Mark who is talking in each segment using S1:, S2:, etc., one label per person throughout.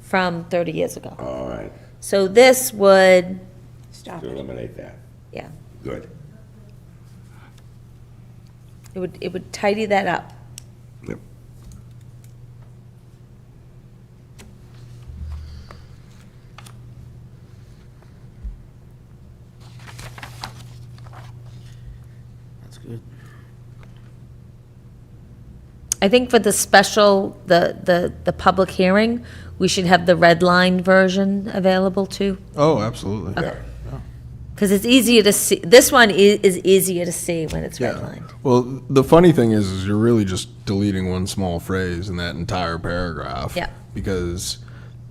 S1: from 30 years ago.
S2: All right,
S1: So this would,
S3: Stop
S2: to
S3: it.
S2: eliminate that.
S1: yeah,
S2: Good.
S1: it would, it would tidy that up.
S2: Yep.
S4: That's good.
S1: I think for the special, the, the, the public hearing, we should have the red line version available too.
S5: Oh, absolutely.
S2: Yeah.
S1: Because it's easier to see, this one is, is easier to see when it's
S5: Yeah.
S1: redlined.
S5: Well, the funny thing is, is you're really just deleting one small phrase in that entire paragraph.
S1: Yeah.
S5: Because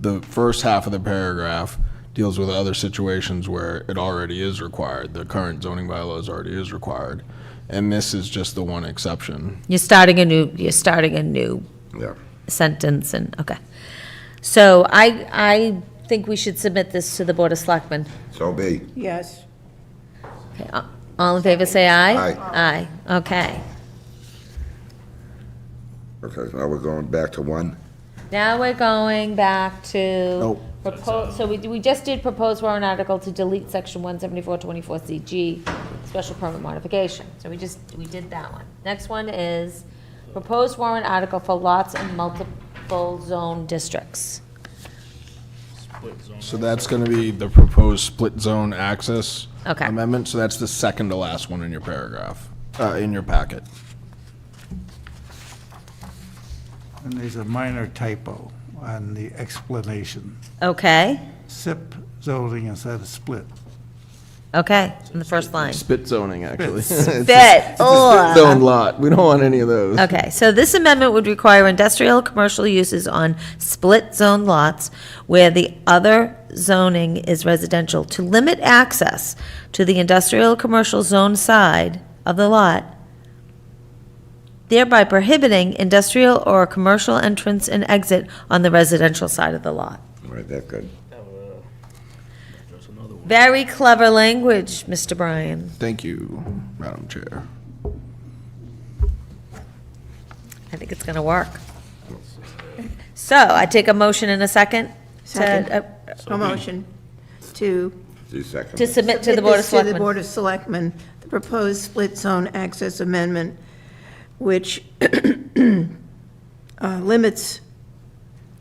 S5: the first half of the paragraph deals with other situations where it already is required. The current zoning bylaws already is required. And this is just the one exception.
S1: You're starting a new, you're starting a new
S2: Yeah.
S1: sentence and, okay. So I, I think we should submit this to the Board of Selectmen.
S2: So be.
S3: Yes.
S1: Okay, a- All in favor, say aye.
S2: Aye.
S1: Aye, okay.
S2: Okay, so now we're going back to one.
S1: Now we're going back to
S5: Nope.
S1: propose, so we, we just did propose warrant article to delete section one seventy-four twenty-four CG, special permit modification. So we just, we did that one. Next one is proposed warrant article for lots in multiple zone districts.
S5: So that's going to be the proposed split zone access
S1: Okay.
S5: amendment. So that's the second to last one in your paragraph, uh, in your packet.
S6: And there's a minor typo on the explanation.
S1: Okay,
S6: SIP zoning instead of split.
S1: okay, in the first line.
S4: Spit zoning, actually.
S1: Bet,
S5: Split zone lot. We don't want any of those.
S1: Okay, so this amendment would require industrial, commercial uses on split-zone lots where the other zoning is residential to limit access to the industrial, commercial zone side of the lot, thereby prohibiting industrial or commercial entrance and exit on the residential side of the lot.
S2: All right, that's good.
S1: Very clever language, Mr. Bryan.
S5: Thank you, Madam Chair.
S1: I think it's going to work. So I take a motion in a second
S3: Second.
S1: to, uh,
S3: A motion to.
S2: Do second.
S1: to submit to the Board of
S3: this To the
S1: Selectmen.
S3: Board of Selectmen, the proposed split zone access amendment, which uh, limits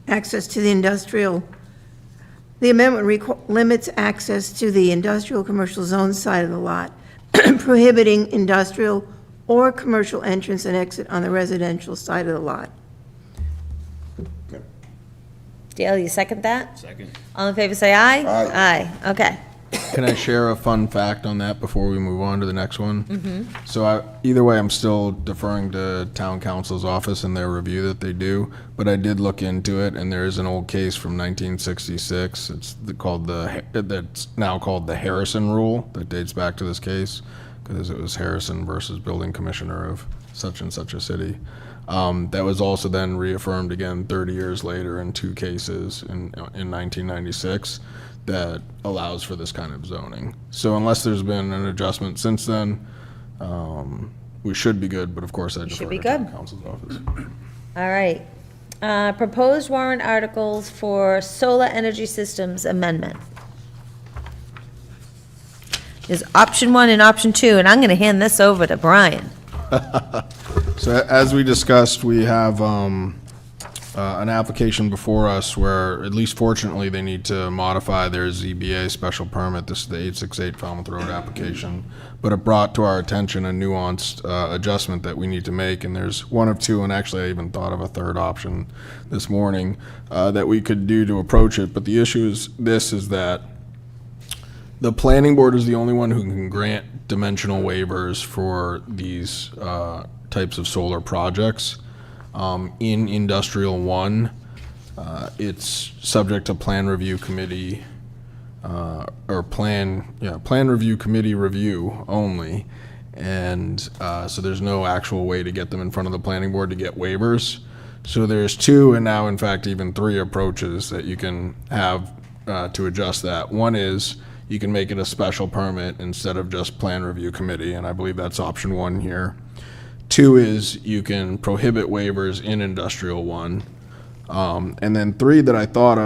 S3: access to the industrial, the amendment requ- limits access to the industrial commercial zone side of the lot, prohibiting industrial or commercial entrance and exit on the residential side of the lot.
S1: Dale, you second that? Second. All in favor, say aye.
S2: Aye.
S1: Aye, okay.
S5: Can I share a fun fact on that before we move on to the next one? Mm-hmm. So I, either way, I'm still deferring to town council's office and their review that they do, but I did look into it, and there is an old case from 1966. It's the- called the, that's now called the Harrison Rule, that dates back to this case, because it was Harrison versus Building Commissioner of such and such a city. Um, That was also then reaffirmed again 30 years later in two cases in, in 1996 that allows for this kind of zoning. So unless there's been an adjustment since then, um, we should be good, but of course I
S1: should
S5: defer
S1: be
S5: to town
S1: good.
S5: council's office.
S1: All right. Uh, Proposed warrant articles for solar energy systems amendment. There's option one and option two, and I'm going to hand this over to Brian.
S5: So a- as we discussed, we have um, uh, an application before us where, at least fortunately, they need to modify their ZBA special permit. This is the 868 Falmouth Road application. But it brought to our attention a nuanced uh, adjustment that we need to make, and there's one of two, and actually I even thought of a third option this morning, uh, that we could do to approach it. But the issue is, this is that the planning board is the only one who can grant dimensional waivers for these uh, types of solar projects. Um, In industrial one, uh, it's subject to plan review committee, uh, or plan, yeah, plan review committee review only. And uh, so there's no actual way to get them in front of the planning board to get waivers. So there's two, and now in fact even three approaches that you can have uh, to adjust that. One is you can make it a special permit instead of just plan review committee, and I believe that's option one here. Two is you can prohibit waivers in industrial one. Um, And then three that I thought of.